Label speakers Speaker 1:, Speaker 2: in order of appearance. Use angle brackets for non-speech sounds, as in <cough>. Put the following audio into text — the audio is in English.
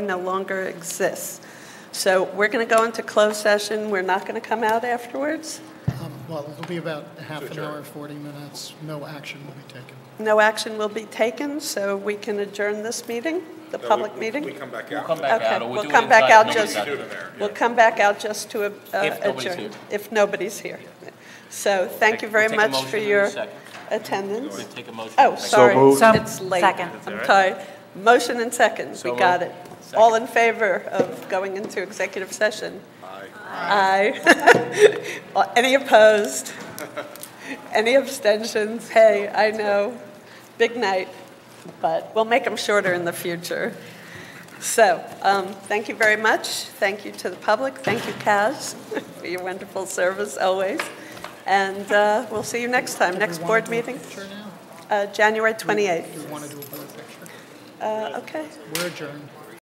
Speaker 1: no longer exists. So we're going to go into closed session. We're not going to come out afterwards.
Speaker 2: Um, Well, it'll be about half an hour, 40 minutes. No action will be taken.
Speaker 1: No action will be taken, so we can adjourn this meeting, the
Speaker 3: No, we-
Speaker 1: public
Speaker 3: we- We
Speaker 1: meeting.
Speaker 3: come back
Speaker 4: We'll come
Speaker 3: out.
Speaker 4: back
Speaker 1: Okay,
Speaker 4: out, or
Speaker 1: we'll
Speaker 4: we'll do it
Speaker 1: come back
Speaker 4: inside.
Speaker 1: out
Speaker 4: Nobody's
Speaker 1: just-
Speaker 4: out
Speaker 3: Do it
Speaker 4: there.
Speaker 3: in there.
Speaker 1: We'll come back out just to uh,
Speaker 4: If nobody's
Speaker 1: adjourn.
Speaker 4: here.
Speaker 1: If nobody's here. So thank you
Speaker 4: Take-
Speaker 1: very
Speaker 4: take a
Speaker 1: much
Speaker 4: motion
Speaker 1: for
Speaker 4: in a
Speaker 1: your
Speaker 4: second.
Speaker 1: attendance.
Speaker 4: Take a motion.
Speaker 1: Oh,
Speaker 4: Thank you.
Speaker 1: sorry,
Speaker 5: moved.
Speaker 1: it's late. I'm tired. Motion and second,
Speaker 4: So
Speaker 1: we got it.
Speaker 4: moved.
Speaker 1: All in favor of going into executive session? Aye. Aye. <laughs> Any opposed? Any abstentions? Hey, I know, big night, but we'll make them shorter in the future. So, um, thank you very much. Thank you to the public. Thank you, Kaz, <laughs> for your wonderful service always. And uh, we'll see you next time, next
Speaker 2: We wanna
Speaker 1: board
Speaker 2: do a
Speaker 1: meeting,
Speaker 2: Picture now?
Speaker 1: uh, January
Speaker 2: Do
Speaker 1: 28th.
Speaker 2: we want to do a board picture?
Speaker 1: Uh, Okay.
Speaker 2: We're adjourned.